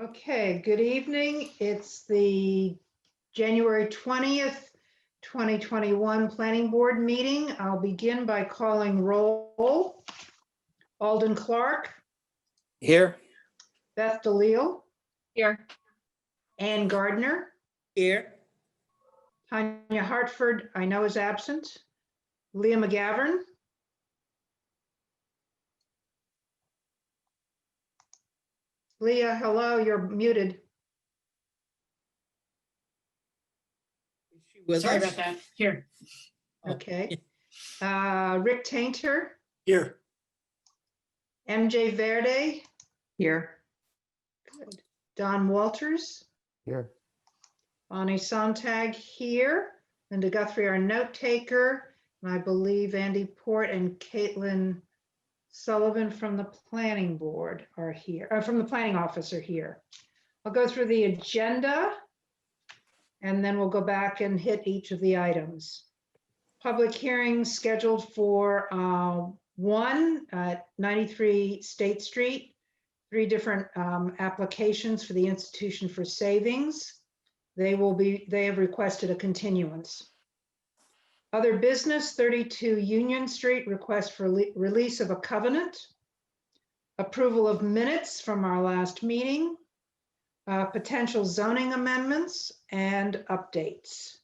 Okay, good evening. It's the January 20th, 2021 Planning Board meeting. I'll begin by calling roll. Alden Clark, Here? Beth DeLeo, Here. Ann Gardner, Here. Tanya Hartford, I know is absent, Leah McGovern. Leah, hello, you're muted. Sorry about that. Here. Okay. Uh, Rick Tainter, Here. MJ Verde, Here. Don Walters. Here. Bonnie Sontag here, Linda Guthrie, our note taker, and I believe Andy Port and Caitlin Sullivan from the planning board are here, uh, from the planning office are here. I'll go through the agenda and then we'll go back and hit each of the items. Public hearing scheduled for uh, one at 93 State Street three different um, applications for the Institution for Savings. They will be, they have requested a continuance. Other business, 32 Union Street, request for le- release of a covenant. Approval of minutes from our last meeting. uh, Potential zoning amendments and updates.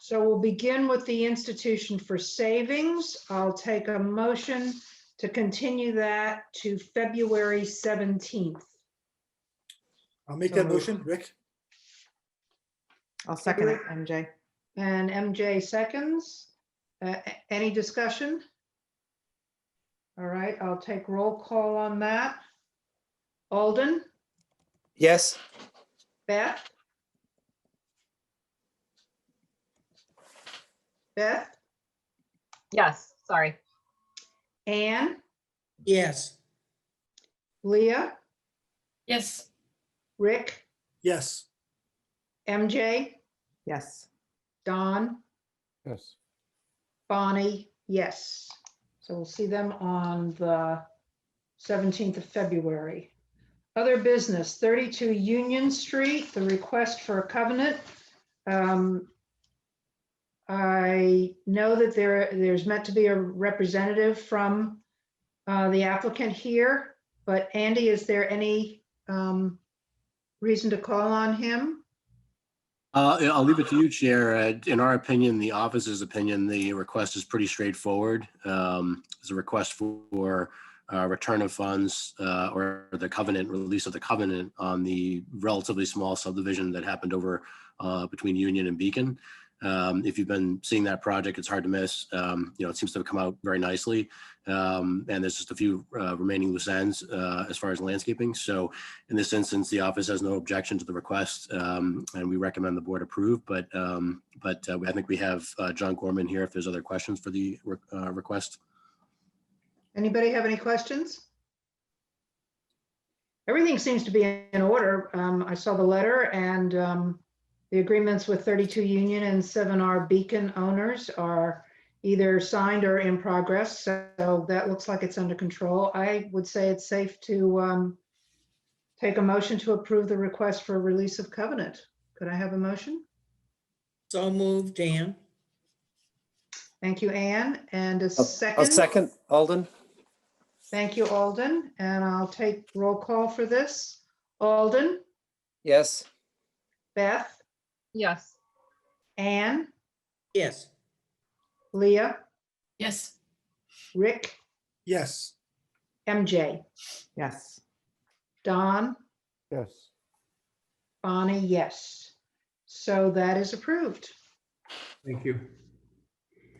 So we'll begin with the Institution for Savings. I'll take a motion to continue that to February 17th. I'll make So that moved. motion, Rick. I'll second it, MJ. And MJ seconds. Uh, a- Any discussion? All right, I'll take roll call on that. Alden, Yes, Beth? Beth, Yes, sorry. Anne, Yes, Leah, Yes. Rick, Yes, MJ, Yes, Don? Yes, Bonnie, yes. So we'll see them on the 17th of February. Other business, 32 Union Street, the request for a covenant. Um, I know that there, there's meant to be a representative from uh, the applicant here, but Andy, is there any um, reason to call on him? Uh, yeah, I'll leave it to you, Chair. Uh, In our opinion, the office's opinion, the request is pretty straightforward. Um, It's a request for uh, return of funds uh, or the covenant, release of the covenant on the relatively small subdivision that happened over uh, between Union and Beacon. Um, If you've been seeing that project, it's hard to miss. Um, You know, it seems to have come out very nicely. Um, And there's just a few uh, remaining loose ends uh, as far as landscaping. So in this instance, the office has no objection to the request, um, and we recommend the board approve, but, um, but uh, I think we have uh, John Gorman here if there's other questions for the re- uh, request. Anybody have any questions? Everything seems to be in order. Um, I saw the letter and, um, the agreements with 32 Union and 7R Beacon owners are either signed or in progress. So that looks like it's under control. I would say it's safe to, um, take a motion to approve the request for release of covenant. Could I have a motion? so moved, Dan. Thank you, Anne, and a I'll second, Alden. Thank you, Alden, and I'll take roll call for this. Alden, Yes. Beth, Yes. Anne, Yes, Leah, Yes. Rick, yes, MJ, yes, Don, yes, Bonnie, yes. So that is approved. Thank you.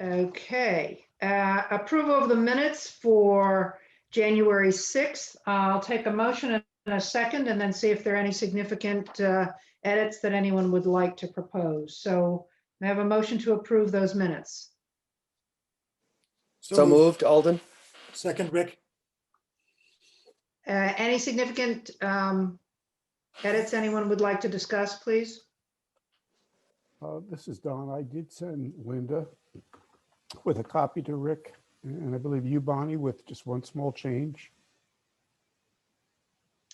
Okay, uh, approval of the minutes for January 6th. I'll take a motion and a second and then see if there are any significant uh, edits that anyone would like to propose. So I have a motion to approve those minutes. So moved. moved, Alden. Second, Rick. Uh, Any significant um, edits anyone would like to discuss, please? Uh, this is Don. I did send Linda with a copy to Rick, and I believe you, Bonnie, with just one small change.